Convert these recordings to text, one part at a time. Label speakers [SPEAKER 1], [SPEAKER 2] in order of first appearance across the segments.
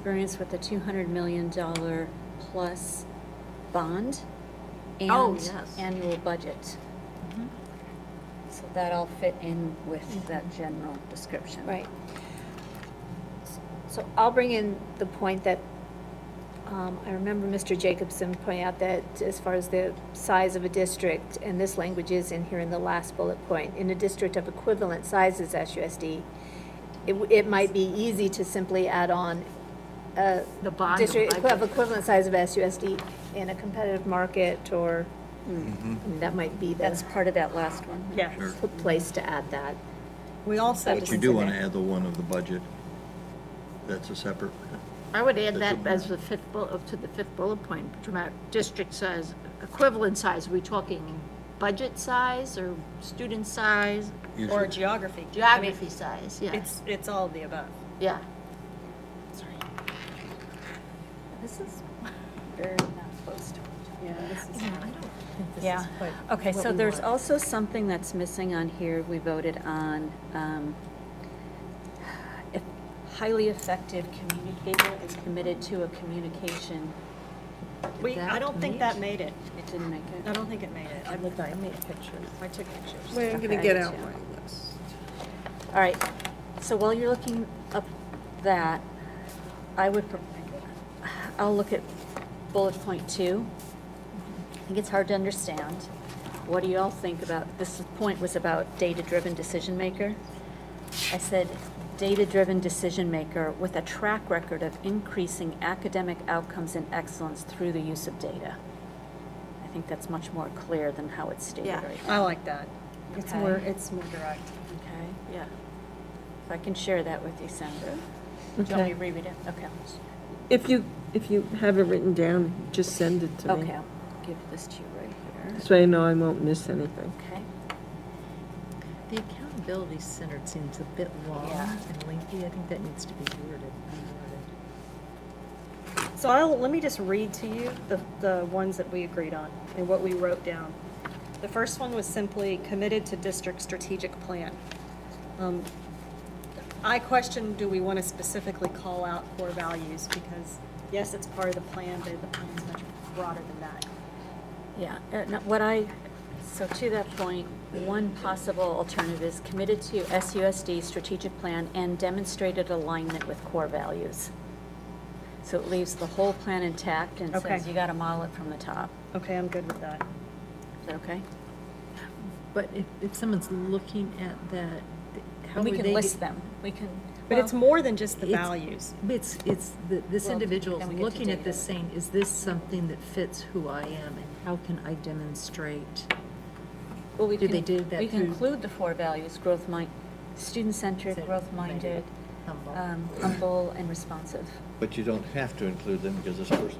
[SPEAKER 1] experience with the two hundred million dollar plus bond
[SPEAKER 2] Oh,
[SPEAKER 1] and
[SPEAKER 2] yes.
[SPEAKER 1] annual budget. Mm-hmm. So that all fit in with that general description.
[SPEAKER 3] Right.
[SPEAKER 1] So,
[SPEAKER 3] I'll bring in the point that, um, I remember Mr. Jacobson pointing out that as far as the size of a district, and this language is in here in the last bullet point, in a district of equivalent sizes SUSD, it, w- it might be easy to simply add on a
[SPEAKER 2] The bond
[SPEAKER 3] district
[SPEAKER 2] of
[SPEAKER 3] equi- of
[SPEAKER 2] budget.
[SPEAKER 3] equivalent size of SUSD in a competitive market, or, that might be
[SPEAKER 1] that's
[SPEAKER 3] the
[SPEAKER 1] part of that last one.
[SPEAKER 4] Sure.
[SPEAKER 3] p- place to add that.
[SPEAKER 5] We also,
[SPEAKER 3] That
[SPEAKER 4] You
[SPEAKER 3] was-
[SPEAKER 4] do want to add the one of the budget. That's a separate,
[SPEAKER 2] I would add that
[SPEAKER 4] That's a-
[SPEAKER 2] as the fifth bullet, to the fifth bullet point, dramatic district size, equivalent size, are we talking budget size or student size,
[SPEAKER 4] you
[SPEAKER 5] or
[SPEAKER 4] should-
[SPEAKER 5] geography. I mean,
[SPEAKER 2] geography size, yeah,
[SPEAKER 5] It's, it's all of the above.
[SPEAKER 2] yeah.
[SPEAKER 1] This is very not close to it.
[SPEAKER 5] Yeah.
[SPEAKER 1] Mm-hmm. Okay, so there's also something that's missing on here, we voted on, um, if highly effective communicator is committed to a communication. Did
[SPEAKER 5] We, I don't think that made it.
[SPEAKER 1] It didn't make
[SPEAKER 5] I
[SPEAKER 1] it.
[SPEAKER 5] don't think it made it. I looked, I made pictures. I took pictures.
[SPEAKER 6] Well, I'm gonna get out my list.
[SPEAKER 1] All right, so while you're looking up that, I would, pro- I'll look at bullet point two. I think it's hard to understand. What do you all think about, this point was about data-driven decision maker. I said, data-driven decision maker with a track record of increasing academic outcomes and excellence through the use of data. I think that's much more clear than how it's stated
[SPEAKER 2] Yeah.
[SPEAKER 1] right
[SPEAKER 5] I
[SPEAKER 1] now.
[SPEAKER 5] like that. It's
[SPEAKER 1] Okay.
[SPEAKER 5] more, it's more direct.
[SPEAKER 1] Okay.
[SPEAKER 2] Yeah.
[SPEAKER 1] If I can share that with you, Sandra. Do you want me to reread it? Okay.
[SPEAKER 6] If you, if you have it written down, just send it to me.
[SPEAKER 1] Okay, I'll give this to you right here.
[SPEAKER 6] So I know I won't miss anything.
[SPEAKER 1] Okay.
[SPEAKER 7] The accountability center seems a bit long and lengthy. I think that needs to be worded. reworded.
[SPEAKER 5] So I'll, let me just read to you the, the ones that we agreed on and what we wrote down. The first one was simply committed to district strategic plan. Um, I question, do we want to specifically call out core values? Because yes, it's part of the plan, but the plan's much broader than that.
[SPEAKER 1] Yeah, uh, no, what I, so to that point, one possible alternative is committed to SUSD strategic plan and demonstrated alignment with core values. So it leaves the whole plan intact and
[SPEAKER 5] Okay.
[SPEAKER 1] says you got to model it from the top.
[SPEAKER 5] Okay, I'm good with that.
[SPEAKER 1] Is that okay?
[SPEAKER 7] But if, if someone's looking at that, th- how
[SPEAKER 1] And we
[SPEAKER 7] would
[SPEAKER 1] can
[SPEAKER 7] they?
[SPEAKER 1] list
[SPEAKER 7] be-
[SPEAKER 1] them. We can,
[SPEAKER 5] But it's more than just the
[SPEAKER 7] It's-
[SPEAKER 5] values.
[SPEAKER 7] It's, it's, the- this
[SPEAKER 1] Well,
[SPEAKER 7] individual's
[SPEAKER 1] then we get to
[SPEAKER 7] looking
[SPEAKER 1] data.
[SPEAKER 7] at this saying, is this something that fits who I am and how can I demonstrate?
[SPEAKER 1] well, we
[SPEAKER 7] Do
[SPEAKER 1] can.
[SPEAKER 7] they do that
[SPEAKER 1] We can
[SPEAKER 7] through-
[SPEAKER 1] include the four values, growth mind, student-centered, growth-minded,
[SPEAKER 7] humble?
[SPEAKER 1] um, humble and responsive.
[SPEAKER 4] but you don't have to include them because this person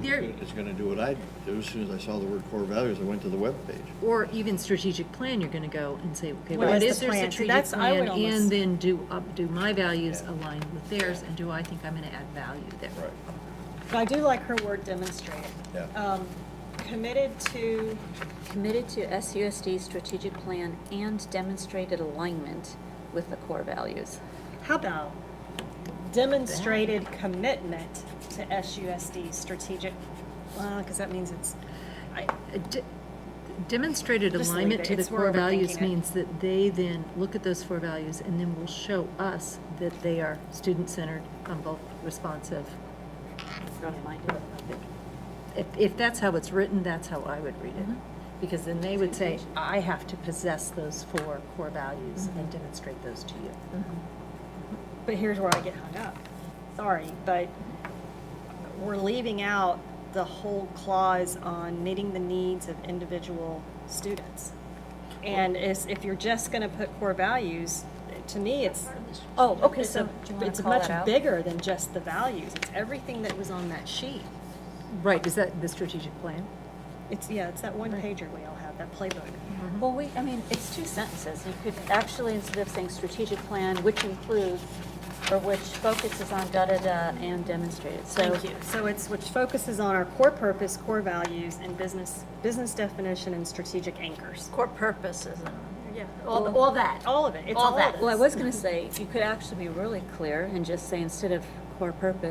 [SPEAKER 7] There,
[SPEAKER 4] is going to do what I do. As soon as I saw the word core values, I went to the webpage.
[SPEAKER 7] or even strategic plan, you're gonna go and say, okay,
[SPEAKER 5] What
[SPEAKER 7] what
[SPEAKER 5] is
[SPEAKER 7] is
[SPEAKER 5] the
[SPEAKER 7] their
[SPEAKER 5] plan? See,
[SPEAKER 7] strategic
[SPEAKER 5] that's- I would
[SPEAKER 7] plan?
[SPEAKER 5] almost-
[SPEAKER 7] And then do, up, do my values align with theirs, and do I think I'm gonna add value there?
[SPEAKER 4] Right.
[SPEAKER 5] But I do like her word demonstrated.
[SPEAKER 4] Yeah.
[SPEAKER 5] Um, Committed to,
[SPEAKER 1] Committed to SUSD's strategic plan and demonstrated alignment with the core values.
[SPEAKER 5] how about demonstrated commitment to SUSD strategic, because that means it's, I,
[SPEAKER 7] A de- Demonstrated
[SPEAKER 5] Just leave
[SPEAKER 7] alignment
[SPEAKER 5] it.
[SPEAKER 7] to the
[SPEAKER 5] It's- we're
[SPEAKER 7] core values
[SPEAKER 5] overthinking it.
[SPEAKER 7] means that they then look at those four values and then will show us that they are student-centered, humble, responsive.
[SPEAKER 1] Growth-minded.
[SPEAKER 7] If, if that's how it's written, that's how I would read it. Because then they would say, I have to possess those four core values and demonstrate those to you.
[SPEAKER 5] but here's where I get hung up. Sorry, but we're leaving out the whole clause on meeting the needs of individual students. And is, if you're just going to put core values, to me, it's,
[SPEAKER 1] Oh, okay,
[SPEAKER 5] it's
[SPEAKER 1] so
[SPEAKER 5] a,
[SPEAKER 1] do you want
[SPEAKER 5] it's
[SPEAKER 1] to call
[SPEAKER 5] much
[SPEAKER 1] that out?
[SPEAKER 5] bigger than just the values. It's everything that was on that sheet.
[SPEAKER 7] Right, is that the strategic plan?
[SPEAKER 5] It's, yeah, it's that one pager we all have, that playbook.
[SPEAKER 1] Mm-hmm. Well, we, I mean, it's two sentences. You could actually, instead of saying strategic plan, which includes, or which focuses on da-da-da and demonstrated, so.
[SPEAKER 5] Thank you. So it's, which focuses on our core purpose, core values, and business, business definition and strategic anchors.
[SPEAKER 2] Core purposes and, yeah, all, all that.
[SPEAKER 5] All of it, it's
[SPEAKER 2] All
[SPEAKER 5] all of
[SPEAKER 2] that.
[SPEAKER 5] it.
[SPEAKER 1] Well, I was gonna say, you could actually be really clear and just say, instead of core purpose,